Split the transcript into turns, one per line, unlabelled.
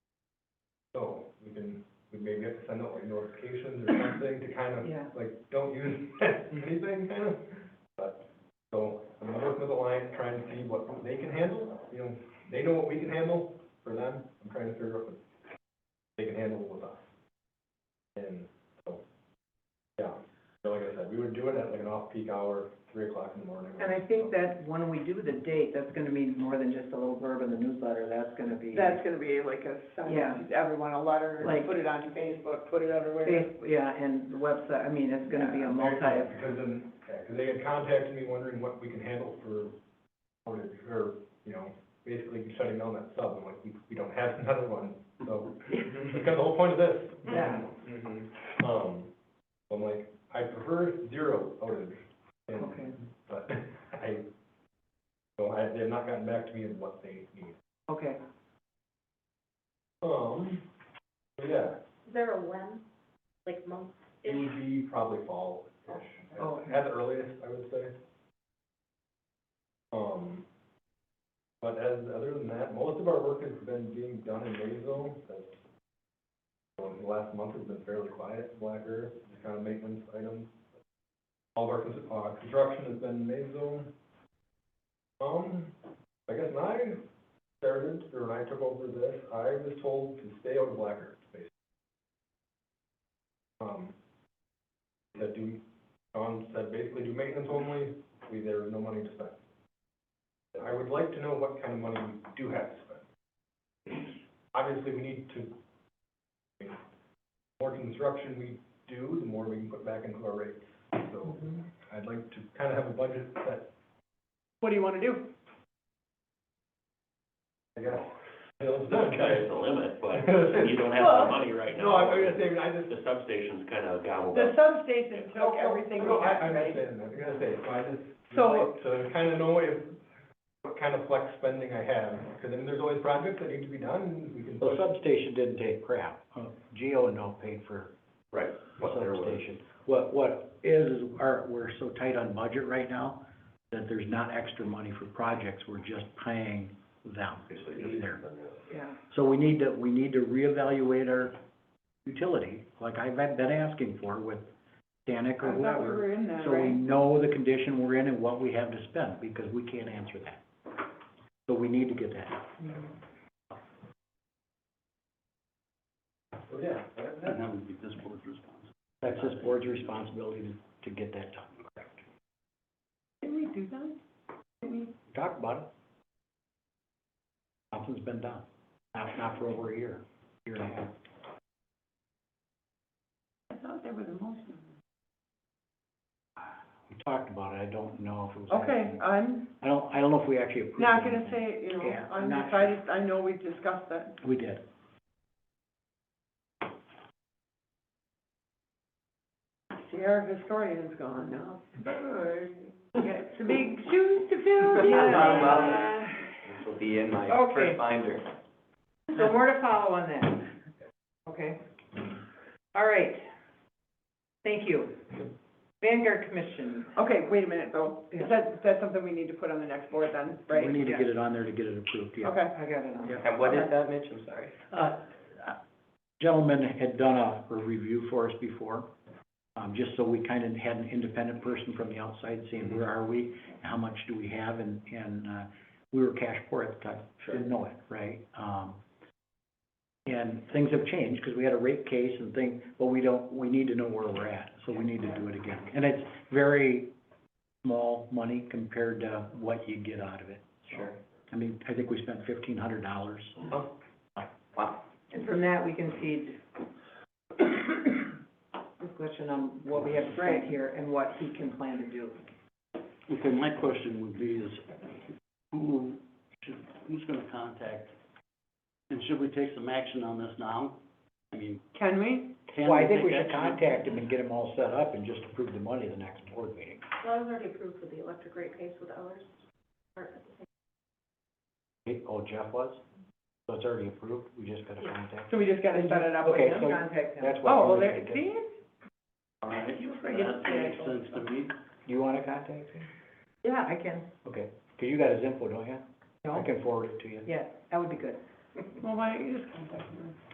maybe have to send out like notifications or something to kind of,
Yeah.
like, don't use anything, kind of. But, so, I'm working with Alliance, trying to see what they can handle, you know, they know what we can handle for them, I'm trying to figure out what they can handle with us. And, so, yeah, so like I said, we would do it at like an off-peak hour, three o'clock in the morning.
And I think that when we do the date, that's gonna mean more than just a little blurb in the newsletter, that's gonna be.
That's gonna be like a, send
Yeah.
everyone a letter,
Like-
put it on Facebook, put it everywhere.
Face- Yeah, and the website, I mean, it's gonna be a
Yeah,
multi,
Because then, yeah, 'cause they had contacted me wondering what we can handle for, or, or, you know, basically shutting down that sub, I'm like, we, we don't have another one, so, that's kind of the whole point of this.
Yeah.
Um, so I'm like, I prefer zero outage, and,
okay,
but I, so I, they've not gotten back to me on what they need.
okay.
Um, so yeah,
Is there a when, like month?
it would be probably fall-ish,
Oh.
at the earliest, I would say. Um, but as, other than that, most of our work has been being done in Maysville, that's, so the last month has been fairly quiet, Black Earth, just kind of maintenance items. All of our, cons- uh, construction has been in Maysville. Um, I guess when I started, or when I took over this, I was told to stay out of Black Earth, basically. Um, that do, Don said basically do maintenance only, we, there is no money to spend. I would like to know what kind of money we do have to spend. Obviously, we need to, I mean, more construction we do, the more we can put back into our rates. So I'd like to kind of have a budget that,
What do you wanna do?
I guess, feels done,
There's the limit, but you don't have the money right now.
No, I'm gonna say, I just,
The substation's kind of gobbled
The
up.
substation took everything
No,
we
I, I
had, right?
understand that, I gotta say, so I just,
So-
like to kind of know if, what kind of flex spending I have, because then there's always projects that need to be done, and we can.
The substation didn't take crap. Uh,
Oh.
Geo and all paid for
Right,
the
what there was.
substation. What, what is, is our, we're so tight on budget right now that there's not extra money for projects. We're just paying them either.
Yeah,
So we need to, we need to reevaluate our utility, like I've been asking for with Danic or
I thought we
whoever.
were in that,
So we
right?
know the condition we're in and what we have to spend, because we can't answer that. So we need to get that.
So, yeah, that- that's-
that would be this board's responsibility. That's this board's responsibility to, to get that done, correct.
Didn't we do that? Didn't we?
Talk about it. Nothing's been done, not, not for over a year, year and a half.
I thought there was a motion.
We talked about it, I don't know if it was.
Okay,
actually-
I'm
I don't, I don't know if we actually approved.
not gonna
anything.
say, you know,
Yeah, I'm
I'm
not
decided, I know we discussed that.
We did.
See, our historian's gone now. We got some big shoes to fill.
Yeah.
This will be in my
Okay.
binder.
so more to follow on that, okay? All right, thank you. Vanguard Commission,
Okay, wait a minute though, is that, is that something we need to put on the next board then, right?
We need to get it on there to get it approved, yeah.
Okay.
I got it on.
Yeah.
And
what is
that, Mitch? I'm sorry.
Uh, Gentleman had done a, a review for us before, um, just so we kind of had an independent person from the outside saying, where are we? How much do we have? And, and, uh, we were cash poor at the time, didn't know it, right? Um, and things have changed because we had a rate case and things, but we don't, we need to know where we're at, so we need to do it again. And it's very small money compared to what you get out of it.
Sure.
I mean, I think we spent fifteen hundred dollars
And from that, we can feed discussion on what we have to plan here and what he can plan to do.
Okay, my question would be is, who should, who's gonna contact? And should we take some action on this now? I mean,
Can we?
can
Well,
we
I think
take
we should
action?
contact him and get him all set up and just approve the money the next board meeting.
Well, I was already approved for the electric rate case with ours. Or-
Okay, Oh, Jeff was? So it's already approved, we just gotta contact him?
So we just gotta set it up with
Okay,
him?
so
Contact him.
That's what.
Oh,
we
well,
need
there,
to do.
see?
All right,
You forget
that
the
makes
actual
sense to me.
Do you wanna contact him?
Yeah, I can,
Okay, 'cause you got his info, don't you? I
no,
can forward it to you.
yeah, that would be good.
Well, why don't you just contact him?